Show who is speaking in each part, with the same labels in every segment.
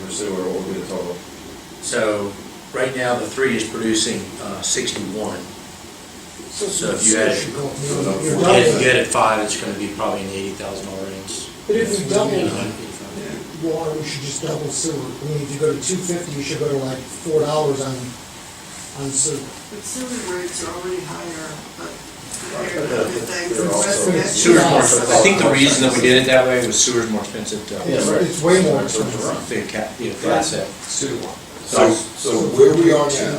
Speaker 1: for sewer, what would be the total?
Speaker 2: So right now, the three is producing uh, 61. So if you had it-
Speaker 3: You're
Speaker 2: You Get
Speaker 3: doubling
Speaker 2: you
Speaker 3: it.
Speaker 2: get at five, it's going to be probably in the $80,000 range.
Speaker 3: But if we double it,
Speaker 2: Yeah.
Speaker 3: water, we should just double sewer. I mean, if you go to two fifty, you should go to like four dollars on, on sewer.
Speaker 4: But sewer rates are already higher, but compared to
Speaker 1: But, uh,
Speaker 4: other things,
Speaker 1: they're
Speaker 4: the West
Speaker 1: also-
Speaker 4: Metro-
Speaker 2: Sewer's more,
Speaker 3: Yeah.
Speaker 2: I think the reason that we did it that way was sewer's more expensive uh, to,
Speaker 3: Yeah.
Speaker 2: the
Speaker 3: It's- it's way more expensive.
Speaker 2: ca- the asset
Speaker 5: So, so where we are now,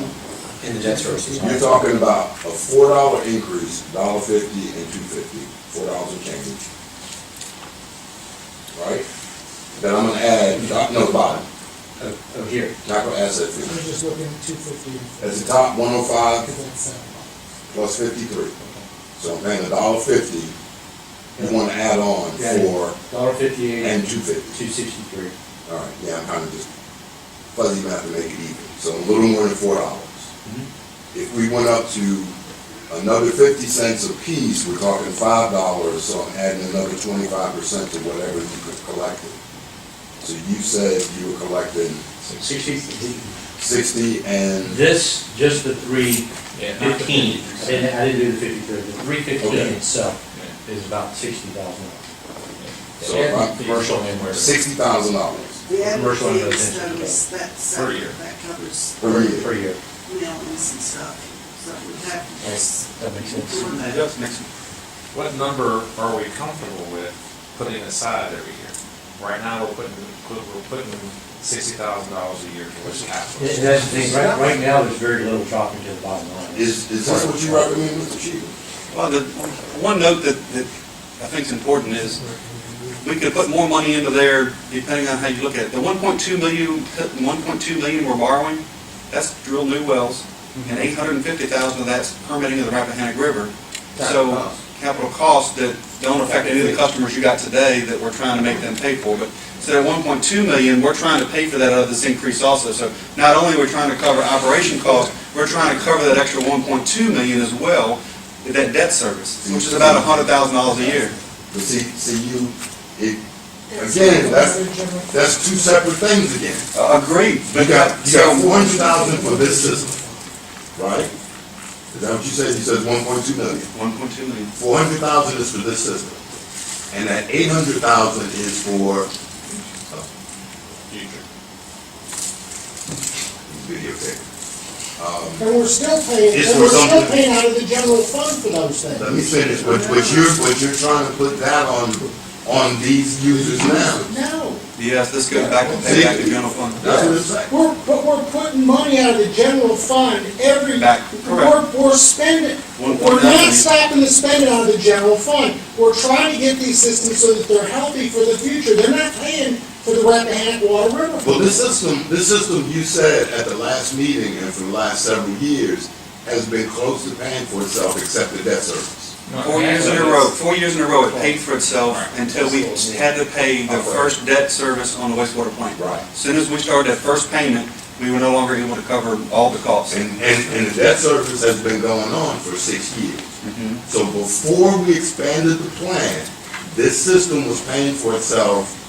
Speaker 2: in the debt service.
Speaker 5: you're talking about a four dollar increase, dollar fifty and two fifty, four dollars and change. Right? Then I'm gonna add, doc- no, bottom,
Speaker 2: Oh, oh, here.
Speaker 5: not gonna asset
Speaker 3: I was
Speaker 5: fee.
Speaker 3: just looking at two fifty and
Speaker 5: That's the top one oh five
Speaker 3: because that's seven.
Speaker 5: plus fifty-three. So I'm paying a dollar fifty, you wanna add on
Speaker 2: Yeah.
Speaker 5: four
Speaker 2: Dollar fifty-eight
Speaker 5: and two fifty.
Speaker 2: two sixty-three.
Speaker 5: All right, yeah, I'm kind of just fuzzy math to make it even, so a little more than four dollars.
Speaker 2: Mhm.
Speaker 5: If we went up to another fifty cents apiece, we're talking five dollars, so I'm adding another twenty-five percent to whatever you could collect it. So you said you were collecting
Speaker 2: Sixty,
Speaker 5: sixty and,
Speaker 6: This, just the three fifteen
Speaker 2: I didn't, I didn't do the fifty-three, the three fifteen
Speaker 5: Okay.
Speaker 2: itself is about sixty thousand dollars.
Speaker 5: So if I-
Speaker 2: uh, Commercial and where.
Speaker 5: sixty thousand dollars
Speaker 4: The
Speaker 2: Commercial and
Speaker 4: advocates,
Speaker 2: residential.
Speaker 4: those, that's,
Speaker 1: Per year.
Speaker 4: that covers
Speaker 5: per year.
Speaker 2: Per year.
Speaker 4: mailings and stuff, so we have to just
Speaker 2: That makes sense.
Speaker 4: do that.
Speaker 1: What number are we comfortable with putting aside every year? Right now, we're putting, we're putting sixty thousand dollars a year towards
Speaker 2: And
Speaker 1: capital.
Speaker 2: that's the thing, right, right now, there's very little dropping to the bottom line.
Speaker 5: Is, is this what you recommend, Mr. Chief?
Speaker 7: Well, the, one note that, that I think is important is, we could put more money into there depending on how you look at it. The 1.2 million, 1.2 million we're borrowing, that's to drill new wells, and 850,000 of that's permitting of the Rappahannock River. So capital costs that don't affect any of the customers you got today that we're trying to make them pay for. But so that 1.2 million, we're trying to pay for that out of this increase also. So not only are we trying to cover operation costs, we're trying to cover that extra 1.2 million as well, with that debt service, which is about $100,000 a year.
Speaker 5: But see, see you, it, again, that's, that's two separate things again.
Speaker 7: Uh, Agreed.
Speaker 5: You got, you got
Speaker 7: So-
Speaker 5: four hundred thousand for this system, right? Is that what you said? You said one point two million.
Speaker 7: 1.2 million.
Speaker 5: Four hundred thousand is for this system. And that eight hundred thousand is for, uh, video pick. Um,
Speaker 3: And we're still paying,
Speaker 5: It's
Speaker 3: and
Speaker 5: for
Speaker 3: we're still
Speaker 5: something-
Speaker 3: paying out of the general fund for those things.
Speaker 5: let me finish, what, what you're, what you're trying to put that on, on these users now.
Speaker 3: No,
Speaker 7: Yes, this goes back to pay back the general fund.
Speaker 5: That's what it's like.
Speaker 3: we're, but we're putting money out of the general fund every,
Speaker 7: Back, correct.
Speaker 3: we're, we're spending.
Speaker 7: One point
Speaker 3: We're
Speaker 7: nine
Speaker 3: not
Speaker 7: million.
Speaker 3: stopping the spending out of the general fund. We're trying to get these systems so that they're healthy for the future. They're not paying for the Rappahannock Water River.
Speaker 5: Well, this system, this system you said at the last meeting and for the last several years has been close to paying for itself except the debt service.
Speaker 7: Four years in a row, four years in a row, it paid for itself until we had to pay the
Speaker 5: Okay.
Speaker 7: first debt service on the wastewater plant.
Speaker 5: Right.
Speaker 7: As Soon as we started that first payment, we were no longer able to cover all the costs.
Speaker 5: And, and, and the debt service has been going on for six years. So before we expanded the plan, this system was paying for itself,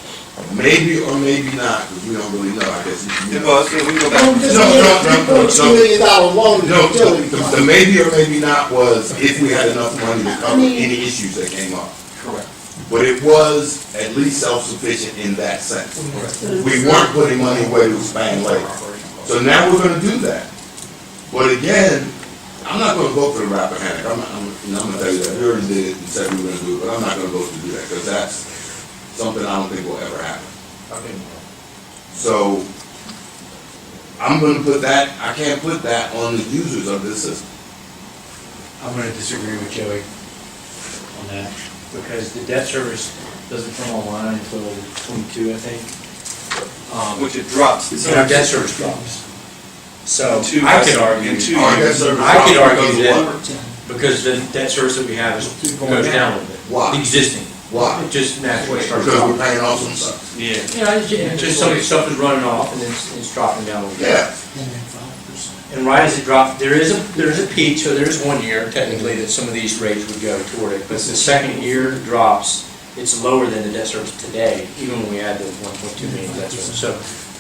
Speaker 5: maybe or maybe not, because we don't really know, I guess. you- you
Speaker 7: It
Speaker 5: know.
Speaker 7: was, we go
Speaker 3: Don't
Speaker 7: back,
Speaker 3: just
Speaker 5: No,
Speaker 3: give
Speaker 5: no,
Speaker 3: a three
Speaker 5: no, no,
Speaker 3: point two million dollar loan to
Speaker 5: No,
Speaker 3: utility
Speaker 5: the, the
Speaker 3: fund.
Speaker 5: maybe or maybe not was if we had enough money to cover any issues that came up.
Speaker 7: correct.
Speaker 5: But it was at least self-sufficient in that sense. We weren't putting money away to expand later. So now we're gonna do that. But again, I'm not gonna vote for the Rappahannock. I'm, I'm, you know, I'm gonna tell you that. We already did it and said we were gonna do it, but I'm not gonna vote to do that, because that's something I don't think will ever happen. So I'm gonna put that, I can't put that on the users of this system.
Speaker 2: I'm gonna disagree with Joey on that, because the debt service doesn't come online until twenty-two, I think. Um,
Speaker 7: Which it drops.
Speaker 2: And our debt service drops. So
Speaker 7: Two,
Speaker 2: I could argue,
Speaker 7: in two
Speaker 5: Our debt
Speaker 7: years.
Speaker 5: service
Speaker 2: I could
Speaker 5: dropped
Speaker 2: argue
Speaker 5: because of
Speaker 2: that, because the debt service that we have is goes down a little bit.
Speaker 5: Why?
Speaker 2: Existing,
Speaker 5: Why?
Speaker 2: it just naturally starts
Speaker 5: Because we're
Speaker 2: dropping.
Speaker 5: paying off some stuff.
Speaker 7: Yeah.
Speaker 2: Yeah, it's ju- it's just some of the stuff is running off and it's, it's dropping down a little bit.
Speaker 5: Yeah.
Speaker 3: And then 5%.
Speaker 2: And right as it dropped, there is a, there is a peak, so there's one year technically that some of these rates would go toward it. But the second year drops, it's lower than the debt service today, even when we add the one point two million debt service. So